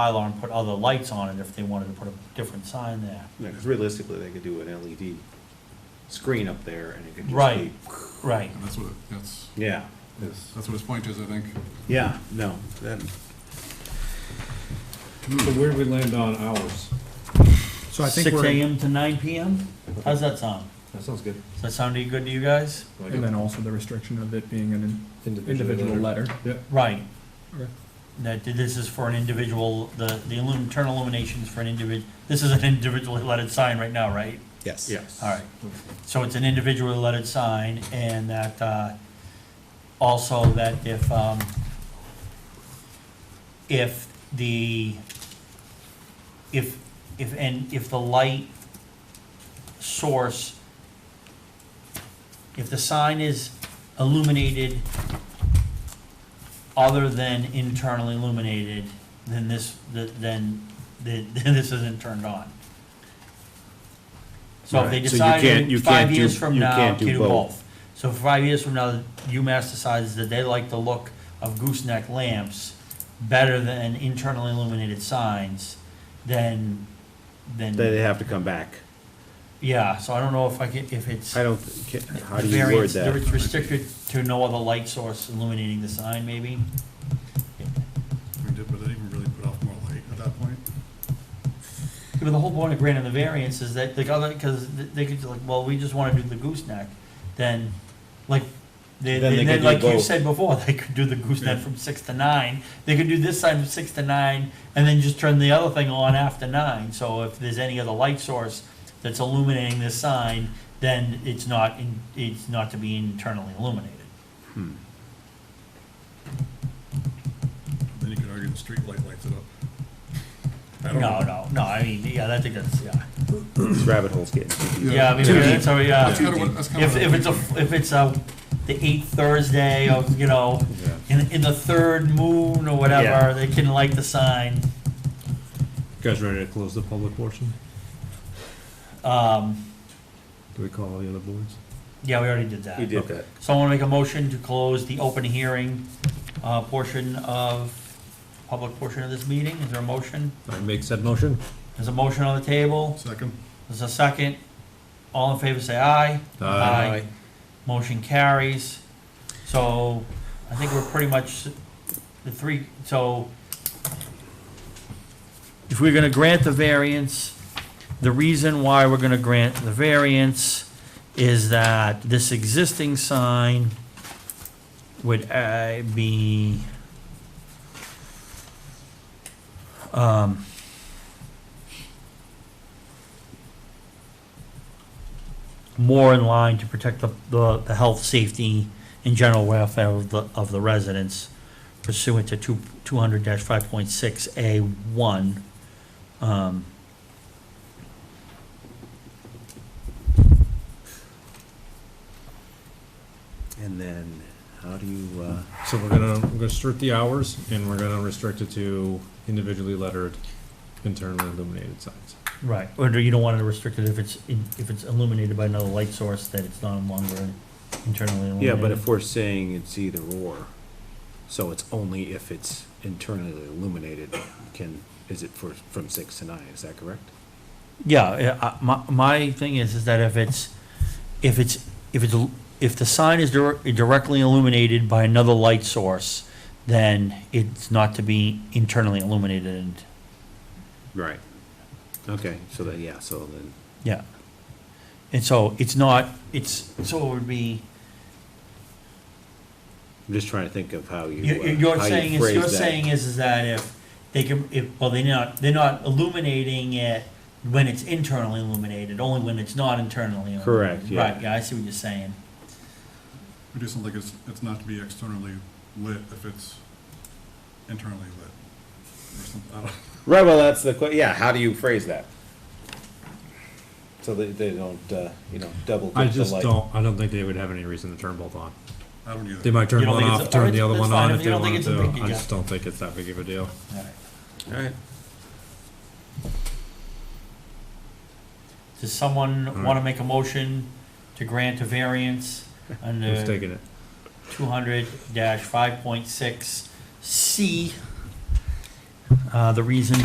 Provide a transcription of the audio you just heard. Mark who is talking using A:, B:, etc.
A: bylaw and put other lights on it if they wanted to put a different sign there.
B: because realistically, they could do an LED screen up there and it could just
A: Right.
B: be,
A: Right.
C: And that's what, it- that's,
B: yeah.
C: that's what his point is, I think.
B: Yeah, no, that,
D: So where do we land on hours?
E: So I think
A: Six
E: we're,
A: AM to nine PM? How's that sound?
D: That sounds good.
A: Does that sound any good to you guys?
E: and then also the restriction of it being an individual letter.
A: Right.
E: Okay.
A: That this is for an individual, the, the illum- internal illuminations for an individ, this is an individually lettered sign right now, right?
F: Yes.
B: yes.
A: All right, so it's an individually lettered sign, and that, uh, also that if, um, if the, if, if, and if the light source, if the sign is illuminated other than internally illuminated, then this, th- then, th- then this isn't turned on. So if they
B: Right, so you
A: decide
B: can't- you
A: in five
B: can't do-
A: years from
B: you
A: now,
B: can't
A: to
B: do
A: do
B: both.
A: both. So if five years from now, UMass decides that they like the look of gooseneck lamps better than internally illuminated signs, then, then.
B: They have to come back.
A: Yeah, so I don't know if I can, if it's.
B: I don't, ca- how do you word
A: variance-
B: that?
A: It's restricted to no other light source illuminating the sign, maybe?
C: We did, but it even really put off more light at that point.
A: But the whole point of granting the variance is that the other, because they could, like, well, we just wanna do the gooseneck, then, like, they,
B: Then they
A: then,
B: could do
A: like you
B: both.
A: said before, they could do the gooseneck
C: Yeah.
A: from six to nine, they could do this side from six to nine, and then just turn the other thing on after nine, so if there's any other light source that's illuminating this sign, then it's not, in- it's not to be internally illuminated.
B: Hmm.
C: Then you could argue the street light lights it up. I
A: No,
C: don't know.
A: no, no, I mean, yeah, I think that's, yeah.
B: These Rabbit holes getting too deep.
A: Yeah, I mean,
C: Too
A: yeah,
C: deep.
A: so, yeah.
C: That's kinda what- that's kinda
A: If,
C: what
A: if
C: I'm
A: it's a, if it's a, the eighth Thursday of, you know,
B: Yeah.
A: in, in the third moon or whatever,
B: Yeah.
A: they can light the sign.
G: Guys ready to close the public portion?
A: Um,
G: Do we call all the other boards?
A: yeah, we already did that.
B: You did that.
A: So I wanna make a motion to close the open hearing, uh, portion of, public portion of this meeting. Is there a motion?
G: I make said motion?
A: There's a motion on the table.
C: Second,
A: There's a second. All in favor, say aye. Aye. Motion carries. So I think we're pretty much the three, so if we're gonna grant the variance, the reason why we're gonna grant the variance is that this existing sign would uh, be um, more in line to protect the, the, the health, safety, and general welfare of the, of the residents pursuant to two, two hundred five point six A one. Um,
B: And then, how do you, uh,
G: So we're gonna, we're gonna restrict the hours, and we're gonna restrict it to individually lettered, internally illuminated signs.
A: right, or do you don't want it restricted if it's, in- if it's illuminated by another light source, that it's no longer internally
B: yeah,
A: illuminated?
B: but if we're saying it's either or, so it's only if it's internally illuminated, can, is it for, from six to nine, is that correct?
A: Yeah, uh, my, my thing is, is that if it's, if it's, if it's, if the sign is dir- directly illuminated by another light source, then it's not to be internally illuminated,
B: Right. Okay, so then, yeah, so then,
A: yeah. And so it's not, it's, so it would be,
B: I'm just trying to think of how you,
A: you-
B: uh,
A: you're
B: how
A: saying,
B: you
A: is you're
B: phrase
A: saying
B: that.
A: is, is that if they can, if, well, they're not, they're not illuminating it when it's internally illuminated, only when it's not internally illuminated.
B: Correct, yeah.
A: Right, yeah, I see what you're saying.
C: we do something like it's, it's not to be externally lit if it's internally lit. Or something, I don't know.
B: Right, well, that's the, que- yeah, how do you phrase that? So they, they don't, uh, you know, double dip the
G: I
B: light.
G: just don't, I don't think they would have any reason to turn both on.
C: I don't either.
G: They might turn
A: You don't
G: one
A: think
G: off,
A: it's-
G: turn the other
A: that's
G: one
A: fine,
G: on
A: if you
G: if they
A: don't think
G: wanted
A: it's a
G: to.
A: big
G: I
A: deal.
G: just don't think it's that big of a deal.
A: All right.
B: All right.
A: Does someone
G: Alright.
A: want to make a motion to grant a variance
G: Who's
A: under
G: taking it?
A: two hundred five point six C Uh, The reason